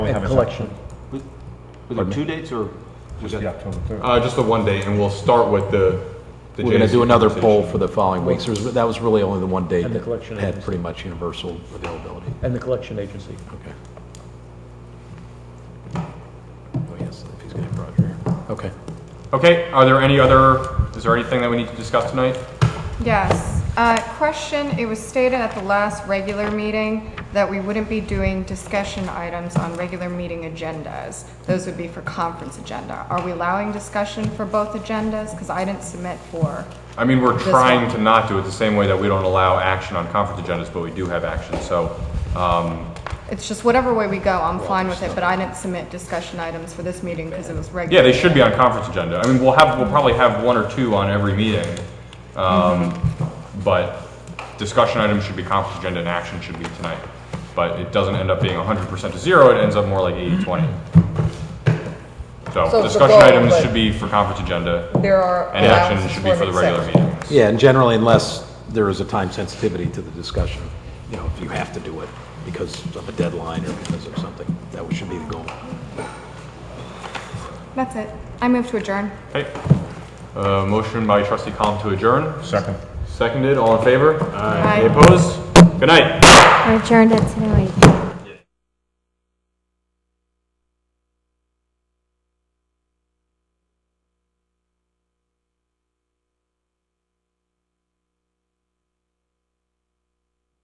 have and a collection. Was was there two dates or? Just the October 3rd. Uh, just the one date, and we'll start with the. the We're going to JSC do another poll conversation. for the following weeks. There's- That was really only the one date And the that collection had agency. pretty much universal availability. And the collection agency. Okay. Oh, yes, if he's going to have Roger here. Okay. Okay, are there any other, is there anything that we need to discuss tonight? Yes. Uh, Question, it was stated at the last regular meeting that we wouldn't be doing discussion items on regular meeting agendas. Those would be for conference agenda. Are we allowing discussion for both agendas? Because I didn't submit for, I mean, we're This trying one. to not do it the same way that we don't allow action on conference agendas, but we do have action, so, um, it's just whatever way we go, I'm fine with it, but I didn't submit discussion items for this meeting because it was yeah, regular. they should be on conference agenda. I mean, we'll have, we'll probably have one or two on every meeting. Um, but discussion items should be conference agenda and action should be tonight. But it doesn't end up being hundred percent to zero, it ends up more like 80-20. So So it's a discussion goal, items but- should be for conference agenda There are and action allowances should for be an for the regular exception. meetings. Yeah, and generally, unless there is a time sensitivity to the discussion, you know, if you have to do it because of a deadline or because of something, that should be the goal. That's it. I move to adjourn. Okay. Uh, motion by trustee Column to adjourn, Second. seconded, all in favor? Aye. Any opposed? Good night. We're adjourned at 7:08.